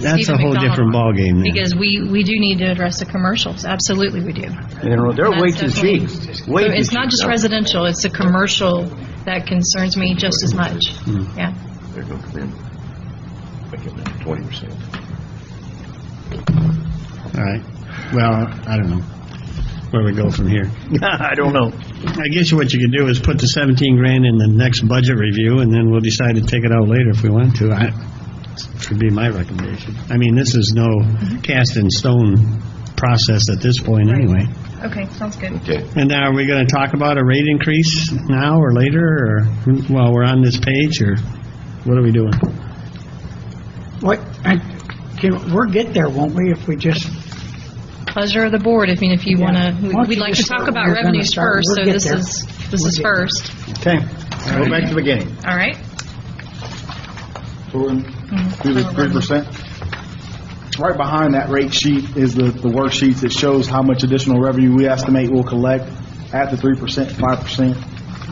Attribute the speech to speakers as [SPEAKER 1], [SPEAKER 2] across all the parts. [SPEAKER 1] That's a
[SPEAKER 2] Stephen
[SPEAKER 1] whole
[SPEAKER 2] McDonald
[SPEAKER 1] different
[SPEAKER 2] on,
[SPEAKER 1] ballgame. then.
[SPEAKER 2] Because we, we do need to address the commercials, absolutely we do.
[SPEAKER 3] And they're way too
[SPEAKER 2] That's
[SPEAKER 3] cheap.
[SPEAKER 2] definitely-
[SPEAKER 3] Way
[SPEAKER 2] So
[SPEAKER 3] too
[SPEAKER 2] It's not
[SPEAKER 3] cheap.
[SPEAKER 2] just residential, it's the commercial that concerns me just as much,
[SPEAKER 4] Hmm.
[SPEAKER 2] yeah.
[SPEAKER 5] They're going to come in, making it twenty percent.
[SPEAKER 1] All right. Well, I don't know where we go from here.
[SPEAKER 3] I don't know.
[SPEAKER 1] I guess what you could do is put the 17 grand in the next budget review, and then we'll decide to take it out later if we want to. I, would be my recommendation. I mean, this is no
[SPEAKER 2] Mm-hmm.
[SPEAKER 1] cast in stone process at this point, anyway.
[SPEAKER 2] Okay, sounds good.
[SPEAKER 5] Okay,
[SPEAKER 1] And now, are we going to talk about a rate increase now or later, or while we're on this page, or what are we doing?
[SPEAKER 4] What, I- can, we'll get there, won't we, if we just...
[SPEAKER 2] Pleasure of the board, I mean, if you want to,
[SPEAKER 4] Once
[SPEAKER 2] we'd
[SPEAKER 4] you
[SPEAKER 2] like to
[SPEAKER 4] just
[SPEAKER 2] talk
[SPEAKER 4] start,
[SPEAKER 2] about
[SPEAKER 4] we're gonna
[SPEAKER 2] revenues
[SPEAKER 4] start,
[SPEAKER 2] first,
[SPEAKER 4] we'll
[SPEAKER 2] so
[SPEAKER 4] get
[SPEAKER 2] this
[SPEAKER 4] there.
[SPEAKER 2] is, this
[SPEAKER 4] We'll
[SPEAKER 2] is
[SPEAKER 4] get there.
[SPEAKER 2] first,
[SPEAKER 3] Okay, go back to the beginning.
[SPEAKER 2] all right?
[SPEAKER 6] So we're in- do the three percent. Right behind that rate sheet is the, the worksheets that shows how much additional revenue we estimate we'll collect at the three percent, five percent.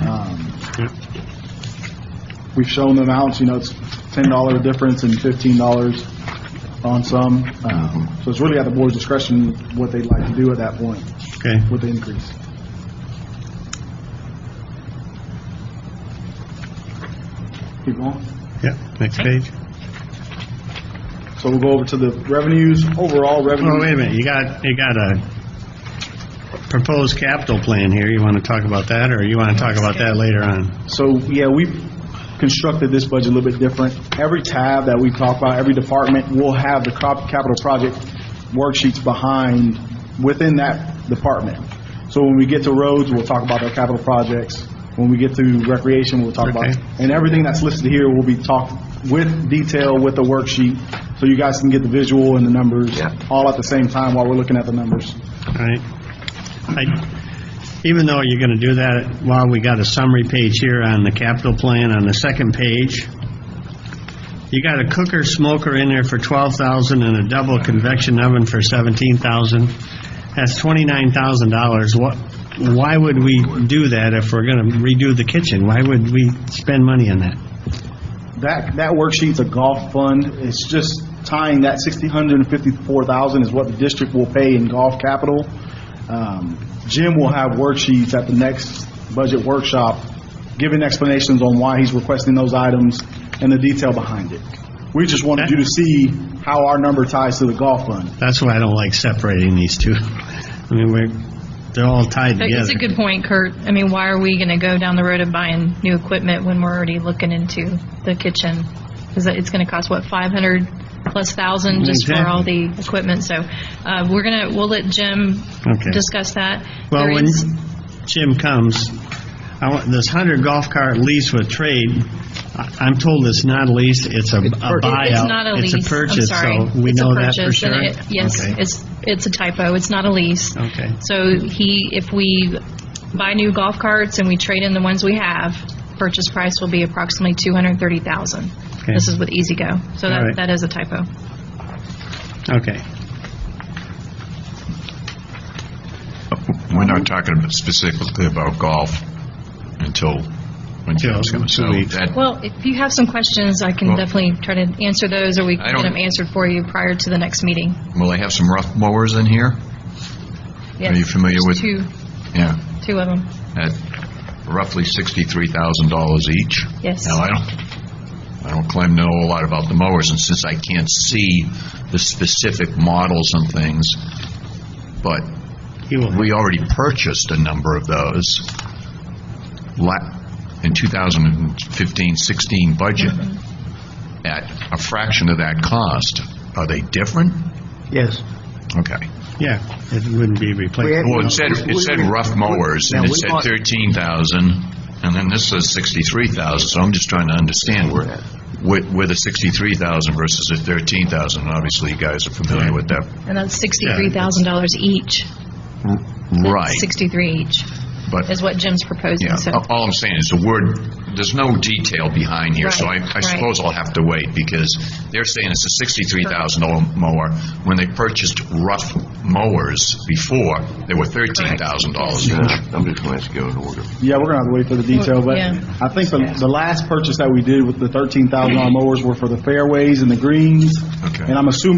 [SPEAKER 6] Um, We've shown the amounts, you know, it's ten dollar difference and fifteen dollars on some. Um, So it's really at the board's discretion what they'd like to do at that point
[SPEAKER 1] Okay.
[SPEAKER 6] with the increase. Keep going.
[SPEAKER 1] Yeah, next page.
[SPEAKER 6] So we'll go over to the revenues,
[SPEAKER 1] Oh,
[SPEAKER 6] overall
[SPEAKER 1] wait
[SPEAKER 6] revenue.
[SPEAKER 1] a minute, you got, you got a proposed capital plan here, you want to talk about that, or you want to talk about that later on?
[SPEAKER 6] So, yeah, we've constructed this budget a little bit different. Every tab that we talk about, every department will have the crop- capital project worksheets behind, within that department. So when we get to roads, we'll talk about our capital projects. When we get to recreation, we'll talk about,
[SPEAKER 1] Okay.
[SPEAKER 6] and everything that's listed here will be talked with detail, with the worksheet, so you guys can get the visual and the numbers
[SPEAKER 5] Yeah.
[SPEAKER 6] all at the same time while we're looking at the numbers.
[SPEAKER 1] All right? I- Even though you're going to do that, while we got a summary page here on the capital plan, on the second page, you got a cooker smoker in there for 12,000 and a double convection oven for 17,000. That's $29,000. What, why would we do that if we're going to redo the kitchen? Why would we spend money on that?
[SPEAKER 6] That, that worksheet's a golf fund. It's just tying that 654,000 is what the district will pay in golf capital. Um, Jim will have worksheets at the next budget workshop, giving explanations on why he's requesting those items and the detail behind it. We just wanted you to see how our number ties to the golf fund.
[SPEAKER 1] That's why I don't like separating these two. I mean, we're, they're all tied
[SPEAKER 2] But It's
[SPEAKER 1] together.
[SPEAKER 2] a good point, Kurt. I mean, why are we going to go down the road of buying new equipment when we're already looking into the kitchen? Because it's going to cost, what, 500 plus thousand just for all the equipment? So uh, we're going to, we'll let Jim
[SPEAKER 1] Okay.
[SPEAKER 2] discuss that.
[SPEAKER 1] Well,
[SPEAKER 2] There
[SPEAKER 1] when
[SPEAKER 2] is-
[SPEAKER 1] Jim comes, I want, this hundred golf cart lease with trade, I- I'm told it's not a lease, it's a a buyout.
[SPEAKER 2] It's not a lease.
[SPEAKER 1] It's a purchase,
[SPEAKER 2] I'm sorry.
[SPEAKER 1] so we
[SPEAKER 2] It's a
[SPEAKER 1] know that for
[SPEAKER 2] purchase,
[SPEAKER 1] sure?
[SPEAKER 2] and it- Yes,
[SPEAKER 1] Okay.
[SPEAKER 2] it's, it's a typo. It's not a lease.
[SPEAKER 1] Okay.
[SPEAKER 2] So he, if we buy new golf carts and we trade in the ones we have, purchase price will be approximately 230,000.
[SPEAKER 1] Okay.
[SPEAKER 2] This is with Easy Go. So
[SPEAKER 1] All
[SPEAKER 2] that,
[SPEAKER 1] right.
[SPEAKER 2] that is a typo.
[SPEAKER 1] Okay.
[SPEAKER 7] We're not talking about- specifically about golf until when
[SPEAKER 1] Till
[SPEAKER 7] Jim's going
[SPEAKER 1] two
[SPEAKER 7] to, so
[SPEAKER 1] weeks.
[SPEAKER 7] that,
[SPEAKER 2] Well, if you have some questions, I can
[SPEAKER 7] Well-
[SPEAKER 2] definitely try to answer those, or we
[SPEAKER 7] I
[SPEAKER 2] can get
[SPEAKER 7] don't-
[SPEAKER 2] them answered for you prior to the next meeting.
[SPEAKER 7] will they have some rough mowers in here? Are you
[SPEAKER 2] Yes.
[SPEAKER 7] familiar with?
[SPEAKER 2] Two,
[SPEAKER 7] Yeah,
[SPEAKER 2] two of them.
[SPEAKER 7] at roughly sixty-three thousand dollars each.
[SPEAKER 2] Yes.
[SPEAKER 7] Now, I don't, I don't claim to know a lot about the mowers, and since I can't see the specific models and things, but
[SPEAKER 1] He will-
[SPEAKER 7] we already purchased a number of those la- in 2015-16 budget at a fraction of that cost. Are they different?
[SPEAKER 3] Yes.
[SPEAKER 7] Okay.
[SPEAKER 1] Yeah, it wouldn't be replaced.
[SPEAKER 7] Well, it said, it said rough mowers, and it said 13,000, and then this says 63,000, so I'm just trying to understand where, where where the 63,000 versus the 13,000, and obviously you guys are familiar with that.
[SPEAKER 2] And that's $63,000 each.
[SPEAKER 7] Right.
[SPEAKER 2] Sixty-three each.
[SPEAKER 7] But-
[SPEAKER 2] is what Jim's proposing,
[SPEAKER 7] Yeah,
[SPEAKER 2] so.
[SPEAKER 7] a- all I'm saying is the word, there's no detail behind here, so I,
[SPEAKER 2] Right,
[SPEAKER 7] I
[SPEAKER 2] right.
[SPEAKER 7] suppose I'll have to wait, because they're saying it's a sixty-three thousand dollar mower, when they purchased rough mowers before, they were thirteen thousand dollars each.
[SPEAKER 5] I'm just going to ask you in order.
[SPEAKER 6] Yeah, we're gonna have to wait for the detail, but
[SPEAKER 2] Yeah.
[SPEAKER 6] I think the, the last purchase that we did with the thirteen thousand dollar mowers were for the fairways and the greens.
[SPEAKER 7] Okay.
[SPEAKER 6] And I'm assuming